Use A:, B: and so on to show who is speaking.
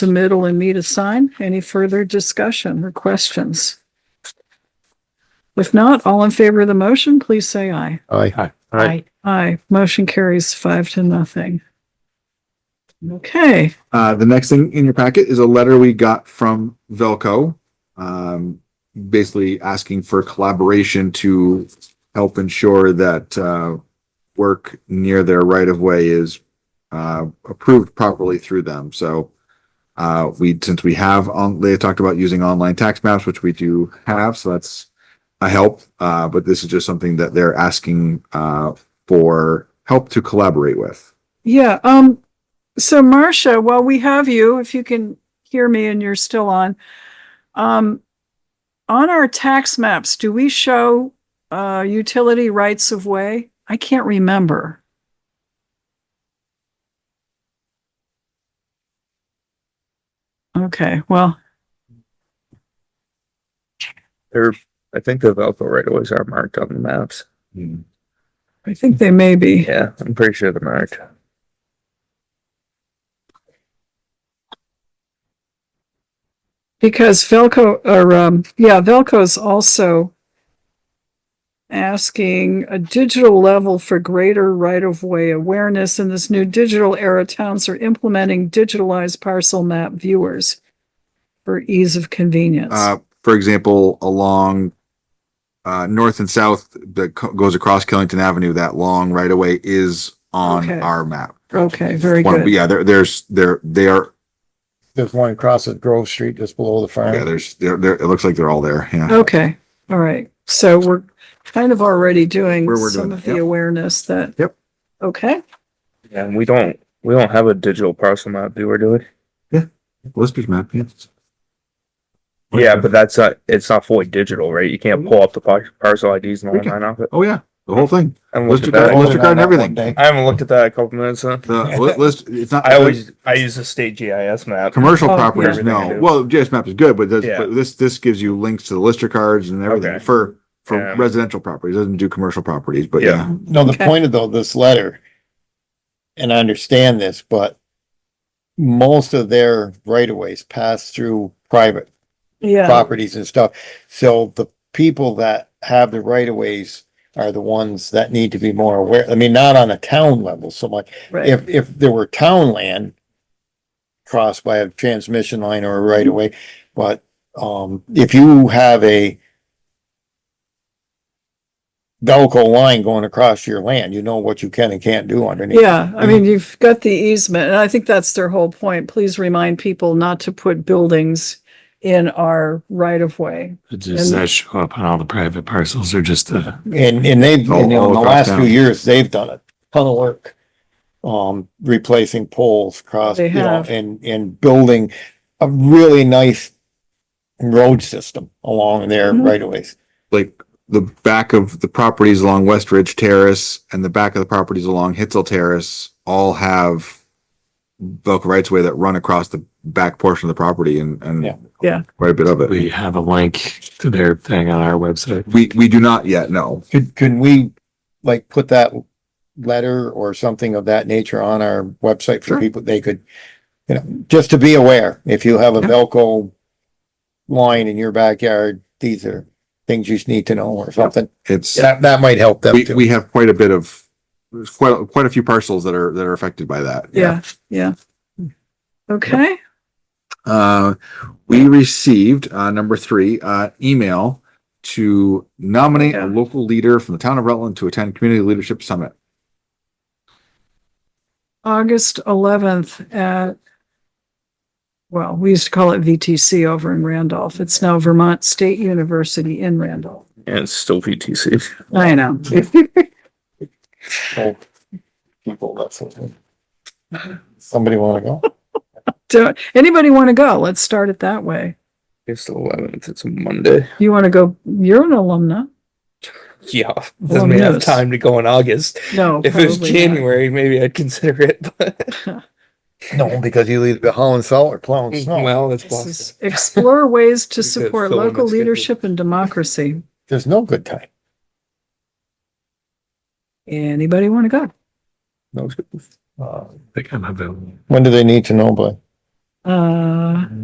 A: submittal and me to sign. Any further discussion or questions? If not, all in favor of the motion, please say aye.
B: Aye.
C: Aye.
A: Aye. Motion carries five to nothing. Okay,
B: Uh, the next thing in your packet is a letter we got from Velco. Um, basically asking for collaboration to help ensure that, uh, work near their right of way is, uh, approved properly through them. So, uh, we, since we have on, they talked about using online tax maps, which we do have, so that's a help. Uh, but this is just something that they're asking, uh, for help to collaborate with.
A: yeah, um, so Marcia, while we have you, if you can hear me and you're still on, um, on our tax maps, do we show, uh, utility rights of way? I can't remember. Okay, well,
C: I think the Velco right of ways are marked on the maps.
A: I think they may be.
C: Yeah, I'm pretty sure they're marked.
A: Because Velco, or, um, yeah, Velco's also asking a digital level for greater right-of-way awareness in this new digital era. Towns are implementing digitalized parcel map viewers for ease of convenience.
B: Uh, for example, along uh, north and south that co- goes across Killington Avenue, that long right away is on
A: Okay.
B: our map.
A: Okay, very
B: One-
A: good.
B: yeah, there, there's there they are.
D: There's one across at Grove Street just below the
B: Yeah,
D: farm.
B: there's there. There it looks like they're all there. Yeah.
A: Okay, all right. So we're kind of already doing
B: We're- we're
A: some
B: doing
A: of
B: it,
A: the
B: yep.
A: awareness that.
B: Yep.
A: Okay,
C: Yeah, and we don't, we don't have a digital parcel map viewer, do we?
B: Lister's map. Yeah.
C: Yeah, but that's not, it's not fully digital, right? You can't pull up the par- parcel IDs and
B: We
C: all
B: can-
C: that off it.
B: Oh yeah, the whole thing.
C: I haven't looked
B: Let's
C: at
B: do that.
C: that.
B: Lister card and everything.
C: I haven't looked at that in a couple minutes, huh?
B: The li- list. It's not.
C: I always, I use the state GIS map.
B: commercial
A: Oh,
B: properties.
C: yeah.
B: No. Well, JS map is good, but, this,
C: Yeah.
B: but this this gives you links to the Lister cards and everything
C: Okay.
B: for for
C: Yeah.
B: residential properties. It doesn't do commercial properties, but
C: Yeah.
B: yeah.
D: No, the
A: Okay.
D: point of though, this letter, and I understand this, but most of their right of ways pass through private
A: yeah,
D: properties and stuff. So the people that have the right of ways are the ones that need to be more aware. I mean, not on a town level so much.
A: right,
D: If, if there were town land crossed by a transmission line or a right of way, but, um, if you have a Velco line going across your land, you know what you can and can't do underneath.
A: yeah. I mean, you've got the easement and I think that's their whole point. Please remind people not to put buildings in our right-of-way.
E: Does
A: And-
E: that show up on all the private parcels or just the?
D: And, and they've,
B: All-
D: in the
B: all across
D: last
B: town.
D: few years, they've done a ton of work. Um, replacing poles across,
A: They
D: you know,
A: have.
D: and, and building a really nice road system along their
A: Mhm.
D: right of ways.
B: like the back of the properties along West Ridge Terrace and the back of the properties along Hitzel Terrace all have Velcro rights of way that run across the back portion of the property and, and
D: Yeah.
A: Yeah.
B: quite a bit of it.
E: We have a link to their thing on our website.
B: We, we do not yet know.
D: Could, could we, like, put that letter or something of that nature on our website
B: Sure.
D: for people, they could, you know, just to be aware, if you have a
B: Yeah.
D: Velco line in your backyard, these are things you need to know or something.
B: It's,
D: That, that might help them
B: we,
D: too.
B: we have quite a bit of, there's quite, quite a few parcels that are, that are affected by that.
A: Yeah, yeah. Okay,
B: Uh, we received, uh, number three, uh, email to nominate
A: Yeah.
B: a local leader from the town of Rutland to attend Community Leadership Summit.
A: August eleventh at, well, we used to call it VTC over in Randolph. It's now Vermont State University in Randolph.
C: Yeah, it's still VTC.
A: I know.
D: Well, People, that's something. Somebody wanna go?
A: Don't, anybody want to go? Let's start it that way.
C: It's the eleventh, it's a Monday.
A: You want to go? You're an alumna?
C: Yeah,
A: Well,
C: doesn't mean I have
A: yes.
C: time to go in August.
A: No.
C: If it was
A: probably not.
C: January, maybe I'd consider it, but,
D: No, because you leave the hauling salt or plowing snow.
C: well, it's
A: Mm-hmm. This is
C: possible.
A: Explore ways to
C: We could
A: support
C: fill in
A: local
C: the schedule.
A: leadership and democracy.
D: There's no good time.
A: Anybody want to go?
C: No, it's-
E: I think I'm available.
D: When do they need to know by?
A: Uh,